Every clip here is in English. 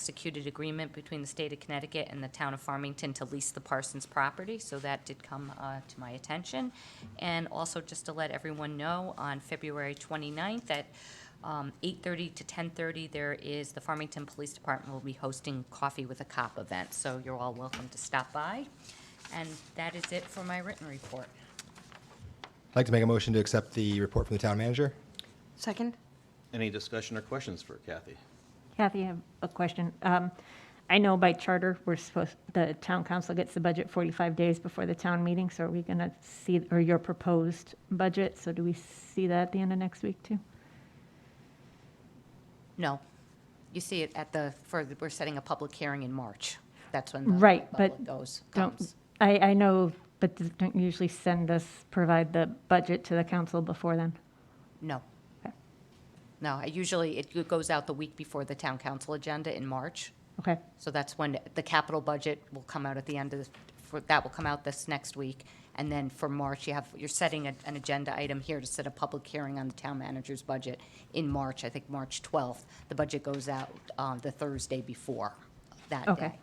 executed agreement between the state of Connecticut and the town of Farmington to lease the Parsons property, so that did come uh, to my attention. And also, just to let everyone know, on February 29th at um, 8:30 to 10:30, there is, the Farmington Police Department will be hosting Coffee with a Cop event, so you're all welcome to stop by. And that is it for my written report. I'd like to make a motion to accept the report from the town manager. Second? Any discussion or questions for Kathy? Kathy, I have a question. Um, I know by charter, we're supposed, the town council gets the budget 45 days before the town meeting, so are we going to see, or your proposed budget, so do we see that at the end of next week, too? No, you see it at the, for, the- we're setting a public hearing in March. That's when the Right, public but goes, don't, comes. I, I know, but th- don't you usually send us, provide the budget to the council before then? No. Okay. No, I usually, it goes out the week before the town council agenda in March. Okay, So that's when the capital budget will come out at the end of, the- for, that will come out this next week. And then for March, you have, you're setting a- an agenda item here to set a public hearing on the town manager's budget in March, I think March 12th. The budget goes out uh, the Thursday before that okay. day.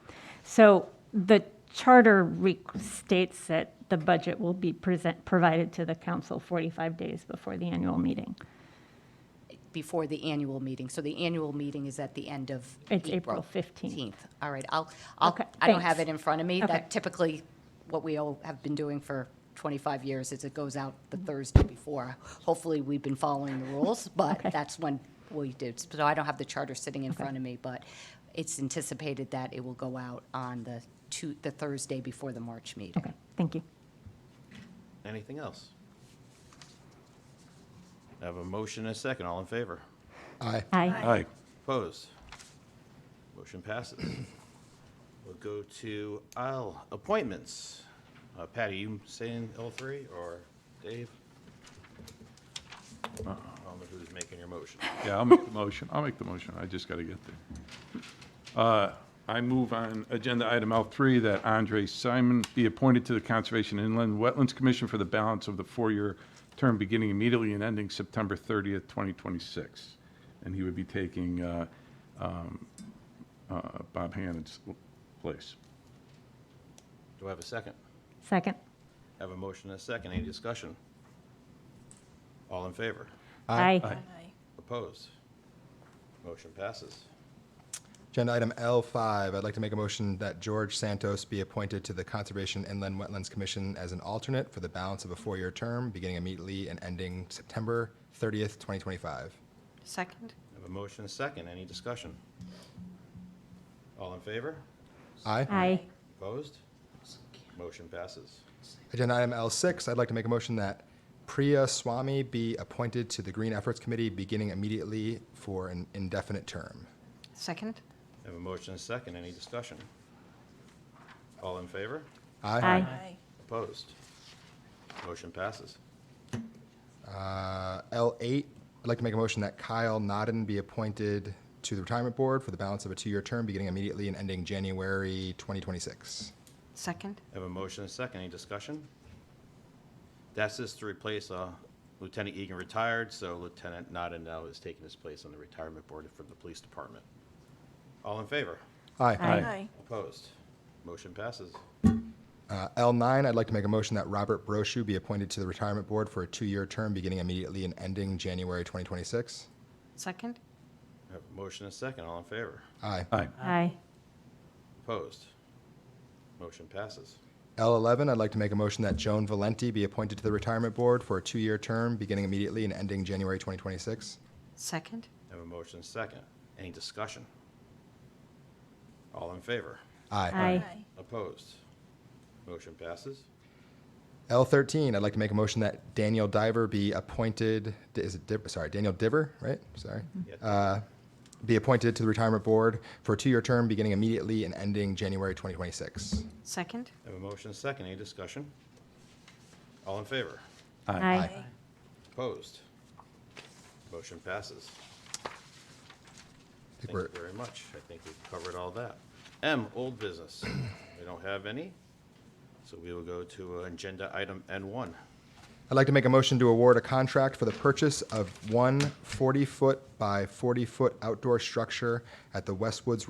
So the charter re- states that the budget will be present, provided to the council 45 days before the annual meeting. before the annual meeting. So the annual meeting is at the end of It's April 15th. All right, I'll, I'll, Okay, I don't have it thanks. in front of me. Okay. That typically, what we all have been doing for 25 years is it goes out the Mm-hmm. Thursday before. Hopefully, we've been following the rules, but Okay. that's when we do. So I don't have the charter sitting in front of me, but it's anticipated that it will go out on the two, the Thursday before the March meeting. Okay, thank you. Anything else? I have a motion and a second. All in favor? Aye. Aye. Aye. Opposed? Motion passes. We'll go to aisle appointments. Uh, Patty, you saying L3 or Dave? Uh-uh. I don't know who's making your motion. Yeah, I'll make the motion. I'll make the motion. I just got to get there. Uh, I move on agenda item L3 that Andre Simon be appointed to the Conservation Inland Wetlands Commission for the balance of the four-year term beginning immediately and ending September 30th, 2026. And he would be taking uh, um, uh, Bob Hannon's place. Do I have a second? Second. I Have a motion and a second. Any discussion? All in favor? Aye. Aye. Opposed? Motion passes. Agenda item L5, I'd like to make a motion that George Santos be appointed to the Conservation Inland Wetlands Commission as an alternate for the balance of a four-year term, beginning immediately and ending September 30th, 2025. Second? I Have a motion, and a second, any discussion? All in favor? Aye. Aye. Opposed? Motion passes. Agenda item L6, I'd like to make a motion that Priya Swami be appointed to the Green Efforts Committee, beginning immediately for an indefinite term. Second? I Have a motion, and a second, any discussion? All in favor? Aye. Opposed? Motion passes. Uh, L8, I'd like to make a motion that Kyle Nodden be appointed to the Retirement Board for the balance of a two-year term, beginning immediately and ending January 2026. Second? I Have a motion, and a second, any discussion? That's just to replace uh, Lieutenant Egan retired, so Lieutenant Nada now is taking his place on the retirement board for the police department. All in favor? Aye. Opposed? Motion passes. Uh, L9, I'd like to make a motion that Robert Brochu be appointed to the Retirement Board for a two-year term, beginning immediately and ending January 2026. Second? I Have a motion, and a second, all in favor? Aye. Aye. Aye. Opposed? Motion passes. L11, I'd like to make a motion that Joan Valenti be appointed to the Retirement Board for a two-year term, beginning immediately and ending January 2026. Second? I Have a motion second. Any discussion? All in favor? Aye. Opposed? Motion passes. L13, I'd like to make a motion that Daniel Diver be appointed, is it, Div- sorry, Daniel Diver, right? Sorry. Yeah. Uh, Be appointed to the Retirement Board for a two-year term, beginning immediately and ending January 2026. Second? I Have a motion second. Any discussion? All in favor? Aye. Opposed? Motion passes. I think Thank we're- you very much. I think we've covered all that. M, old business. We don't have any, so we will go to agenda item N1. I'd like to make a motion to award a contract for the purchase of one 40-foot by 40-foot outdoor structure at the Westwoods